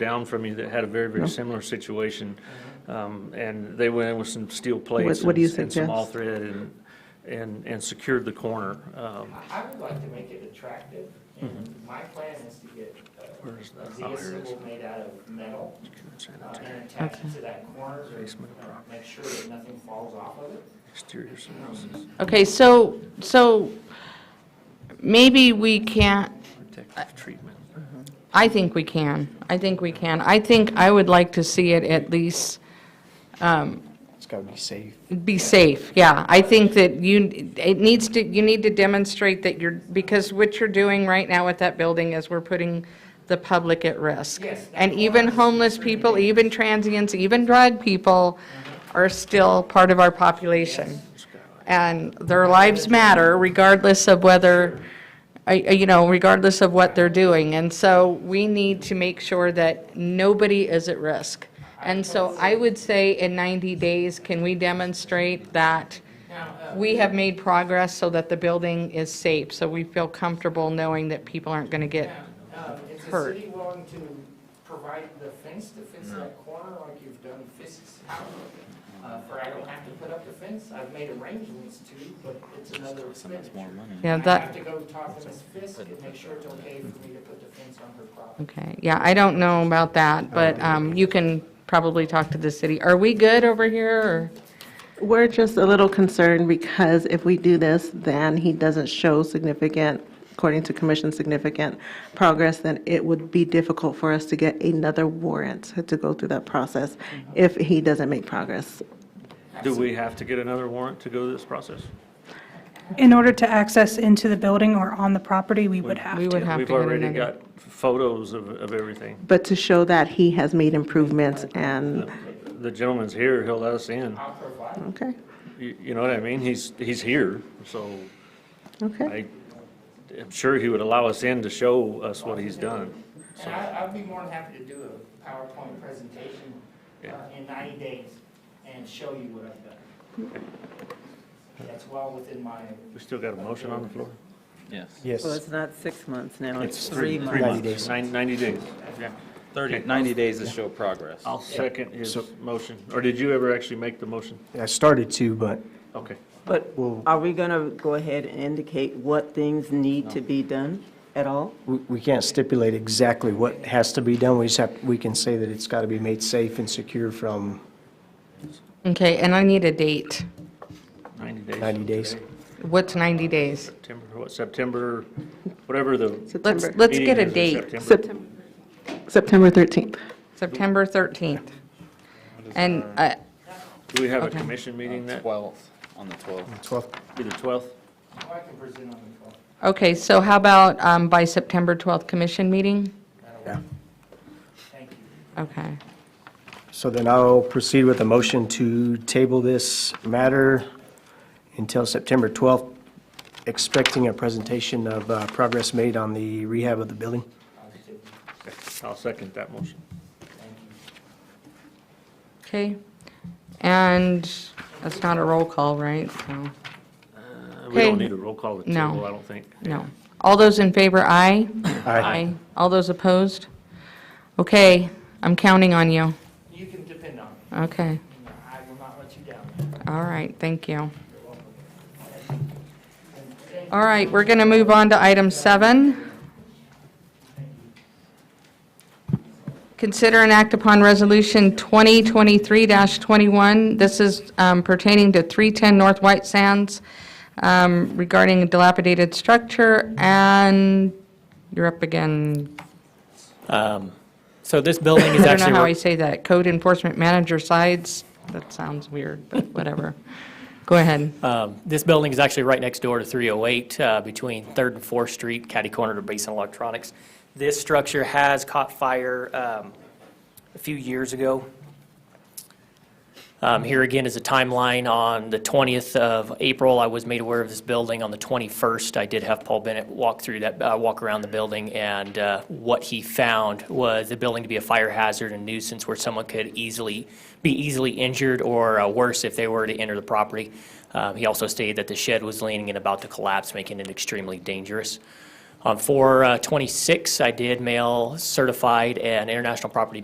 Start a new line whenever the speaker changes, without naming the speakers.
down from you that had a very,
No.
very similar situation. Um, And they went in with some steel plates.
What- what do you
and- And
suggest?
some all thread and, and, and secured the corner. Um,
I I would like to make it attractive, and my plan is to get uh,
Where is
a
that? Oh,
Zia
here it is.
symbol made out of metal uh, and attach
Okay.
it to that corner to
Basement
uh, make sure that nothing falls off of it.
Exterior surfaces.
Okay, so, so maybe we can't,
protective treatment.
I think we can. I think we can. I think I would like to see it at least um,
It's gotta be safe.
be safe, yeah. I think that you, it needs to, you need to demonstrate that you're, because what you're doing right now with that building is we're putting the public at risk.
Yes, that
And even
was-
homeless people, even transients, even drug people are still part of our population. And their lives matter regardless of whether, I- I- you know, regardless of what they're doing. And so we need to make sure that nobody is at risk. And so I would say in 90 days, can we demonstrate that
Now, uh,
we have made progress so that the building is safe? So we feel comfortable knowing that people aren't going to get,
now, um, is the
Hurt.
city willing to provide the fence to fence that corner like you've done Fisk's house? Uh, For I don't have to put up the fence, I've made arrangements to, but it's another expenditure.
yeah,
I
that.
have to go talk to Ms. Fisk and make sure it's okay for me to put the fence on her property.
Okay, yeah, I don't know about that, but um, you can probably talk to the city. Are we good over here?
We're just a little concerned because if we do this, then he doesn't show significant, according to commission, significant progress, then it would be difficult for us to get another warrant to go through that process if he doesn't make progress.
Do we have to get another warrant to go through this process?
In order to access into the building or on the property, we would have
We would
to.
have to
We've
get
already
another.
got photos of, of everything.
But to show that he has made improvements and,
The gentleman's here, he'll let us in.
I'll provide
okay,
You, you know what I mean? He's, he's here, so
okay.
I am sure he would allow us in to show us what he's done.
And I, I'd be more than happy to do a PowerPoint presentation uh, in 90 days and show you what I've done. That's well within my,
We still got a motion on the floor?
Yes,
Yes,
Well, it's not six months now, it's
It's
three months.
Three
90
months,
days.
Nine- 90 days.
30, 90 days to show progress.
I'll second his motion. Or did you ever actually make the motion?
I started to, but
Okay.
But
Well-
are we going to go ahead and indicate what things need to be done at all?
we, we can't stipulate exactly what has to be done. We just have, we can say that it's gotta be made safe and secure from
Okay, and I need a date.
90 days.
90 days.
What's 90 days?
September, what, September, whatever the.
Let's,
September,
let's get
meeting
a
is in
date,
September.
Sep- September 13th.
September 13th. And, uh,
Do we have a
okay.
commission meeting that,
12th, on the 12th.
12th,
be the 12th?
I can present on the 12th.
okay, so how about um, by September 12th commission meeting?
yeah.
Thank you.
Okay.
So then I'll proceed with a motion to table this matter until September 12th, expecting a presentation of uh, progress made on the rehab of the building.
I'll second that motion.
Okay. And that's not a roll call, right? So,
Uh, We don't
Okay.
need a roll call at the
No.
table, I don't think.
no. All those in favor, aye? Aye. All those opposed? Okay, I'm counting on you.
You can depend on me.
Okay,
I will not let you down.
all right, thank you. All right, we're going to move on to item seven. Consider and act upon Resolution 2023-21. This is um, pertaining to 310 North White Sands um, regarding a dilapidated structure, and you're up again.
So this building
I
is
don't know how I
actually,
say that. Code Enforcement Manager Sides, that sounds weird, but whatever. Go ahead.
um, this building is actually right next door to 308, uh, between 3rd and 4th Street, catty corner to Basin Electronics. This structure has caught fire um, a few years ago. Um, Here again is a timeline. On the 20th of April, I was made aware of this building. On the 21st, I did have Paul Bennett walk through that, uh, walk around the building, and uh, what he found was the building to be a fire hazard and nuisance where someone could easily, be easily injured or uh, worse if they were to enter the property. Um, He also stated that the shed was leaning and about to collapse, making it extremely dangerous. On 4/26, I did mail certified and international property